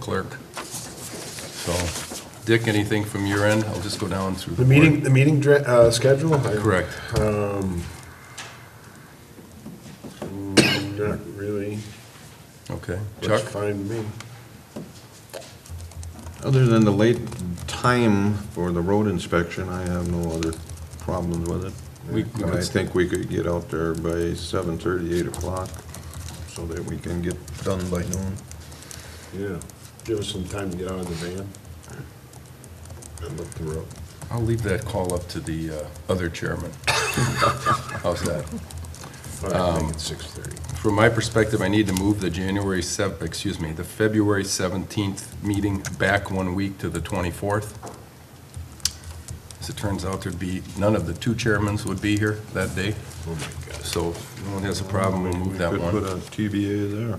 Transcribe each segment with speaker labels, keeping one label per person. Speaker 1: clerk. So, Dick, anything from your end? I'll just go down through the
Speaker 2: The
Speaker 1: board.
Speaker 2: meeting, the meeting dra- uh, schedule? I-
Speaker 1: Correct.
Speaker 2: Not really.
Speaker 1: Okay. Chuck?
Speaker 2: Looks fine to me.
Speaker 3: Other than the late time for the road inspection, I have no other problems with it.
Speaker 1: We- we
Speaker 3: And I
Speaker 1: could-
Speaker 3: think we could get out there by seven thirty, eight o'clock, so that we can get done by noon.
Speaker 2: Yeah. Give us some time to get out of the van and look the road.
Speaker 1: I'll leave that call up to the uh, other chairman. How's that?
Speaker 2: All right,
Speaker 1: Um,
Speaker 2: make it six thirty.
Speaker 1: From my perspective, I need to move the January 7, excuse me, the February 17th meeting back one week to the 24th. As it turns out, there'd be, none of the two chairmans would be here that day,
Speaker 2: Oh, my gosh.
Speaker 1: so if no one has a problem, we'll move that
Speaker 3: Could put
Speaker 1: one.
Speaker 3: a TBA there.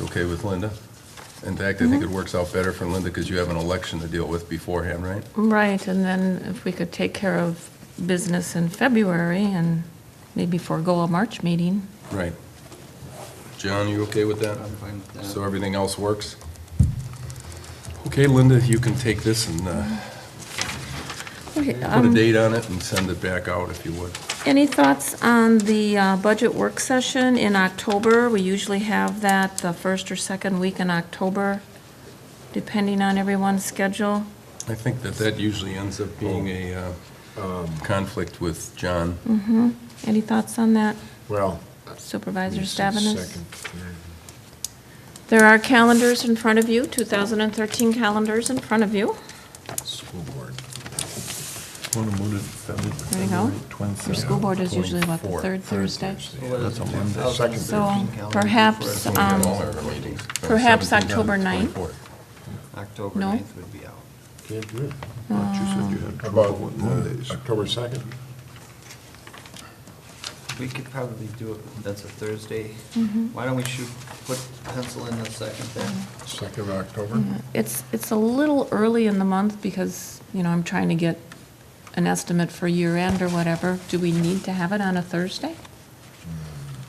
Speaker 1: Okay with Linda? In fact, I think it works out better for Linda because you have an election to deal with beforehand, right?
Speaker 4: Right, and then if we could take care of business in February and maybe forego a March meeting.
Speaker 1: Right. John, you okay with that?
Speaker 5: I'm fine with that.
Speaker 1: So everything else works? Okay, Linda, you can take this and uh, put a
Speaker 4: Um,
Speaker 1: date on it and send it back out if you would.
Speaker 4: Any thoughts on the uh, budget work session in October? We usually have that the first or second week in October, depending on everyone's schedule.
Speaker 1: I think that that usually ends up being a uh, conflict with John.
Speaker 4: Any thoughts on that,
Speaker 2: Well.
Speaker 4: Supervisor
Speaker 2: it's the
Speaker 4: Stabenus?
Speaker 2: second, third.
Speaker 4: There are calendars in front of you, 2013 calendars in front of you.
Speaker 2: School board.
Speaker 3: Want to move it February?
Speaker 4: There you go. Your school board is usually what, the third Thursday?
Speaker 3: That's a Monday.
Speaker 2: Second
Speaker 4: So
Speaker 5: Thursday.
Speaker 4: perhaps,
Speaker 1: We
Speaker 4: um,
Speaker 1: have all our meetings, uh,
Speaker 4: perhaps
Speaker 1: 17th and
Speaker 4: October 9th.
Speaker 1: 24th.
Speaker 5: October
Speaker 4: No.
Speaker 5: 9th would be out.
Speaker 2: Can't do it.
Speaker 3: But you said you had
Speaker 2: How
Speaker 3: trouble
Speaker 2: About
Speaker 3: with
Speaker 2: uh,
Speaker 3: Mondays.
Speaker 2: October second?
Speaker 5: We could probably do it, that's a Thursday.
Speaker 4: Mm-hmm.
Speaker 5: Why don't we shoot, put pencil in the second then?
Speaker 2: Second of October?
Speaker 4: Mm-hmm. It's, it's a little early in the month because, you know, I'm trying to get an estimate for year end or whatever. Do we need to have it on a Thursday?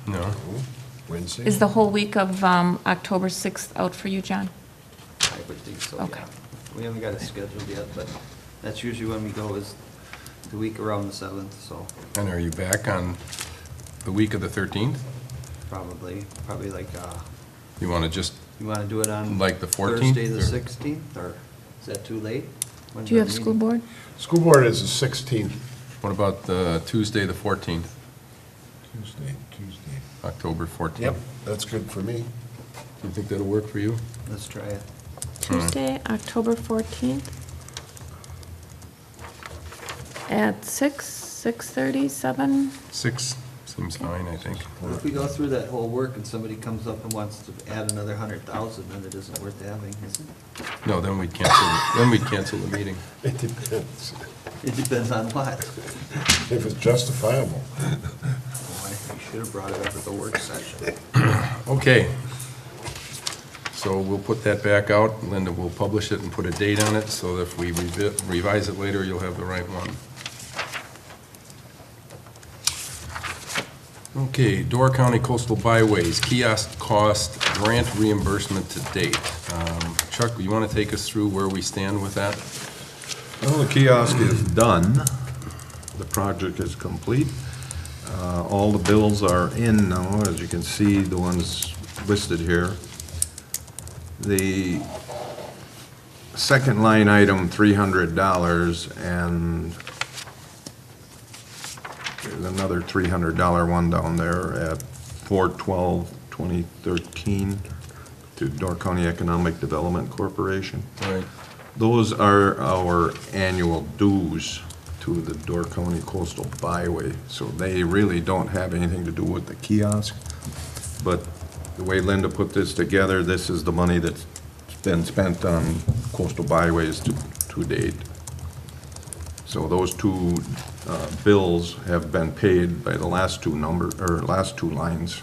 Speaker 1: No?
Speaker 2: Oh, Wednesday?
Speaker 4: Is the whole week of um, October 6th out for you, John?
Speaker 5: I would think so,
Speaker 4: Okay.
Speaker 5: yeah. We haven't got it scheduled yet, but that's usually when we go is the week around the 7th, so
Speaker 1: And are you back on the week of the 13th?
Speaker 5: probably, probably like, uh,
Speaker 1: You want to just,
Speaker 5: you want to do it on?
Speaker 1: Like the 14th,
Speaker 5: Thursday, the
Speaker 1: or-
Speaker 5: 16th, or is that too late? When's
Speaker 4: Do you
Speaker 5: our
Speaker 4: have school
Speaker 5: meeting?
Speaker 4: board?
Speaker 2: School board is the sixteenth.
Speaker 1: what about uh, Tuesday, the 14th,
Speaker 2: Tuesday, Tuesday.
Speaker 1: October 14th?
Speaker 2: Yep, that's good for me.
Speaker 1: Do you think that'll work for you?
Speaker 5: Let's try it.
Speaker 4: Tuesday, October 14th? At 6, 6:30, 7?
Speaker 1: Six seems fine, I think.
Speaker 5: If we go through that whole work and somebody comes up and wants to add another 100,000, then it isn't worth having, is it?
Speaker 1: No, then we'd cancel, the- then we'd cancel the meeting.
Speaker 2: It depends
Speaker 5: It depends on what.
Speaker 2: if it's justifiable.
Speaker 5: Boy, You should have brought it up at the work session.
Speaker 1: Okay. So we'll put that back out. Linda will publish it and put a date on it, so if we revi- revise it later, you'll have the right one. Okay, Door County Coastal Byways kiosk cost grant reimbursement to date. Um, Chuck, you want to take us through where we stand with that?
Speaker 3: Well, the kiosk is done. The project is complete. Uh, All the bills are in now, as you can see, the ones listed here. The second line item, $300, and there's another $300 one down there at 4/12/2013 to Door County Economic Development Corporation.
Speaker 1: Right.
Speaker 3: Those are our annual dues to the Door County Coastal Byway, so they really don't have anything to do with the kiosk. But the way Linda put this together, this is the money that's been spent on coastal byways to, to date. So those two uh, bills have been paid by the last two number, or last two lines,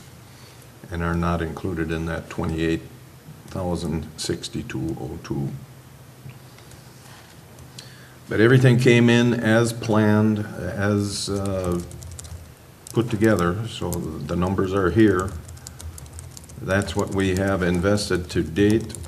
Speaker 3: and are not included in that twenty-eight thousand sixty-two oh two. But everything came in as planned, as uh, put together, so the numbers are here. That's what we have invested to date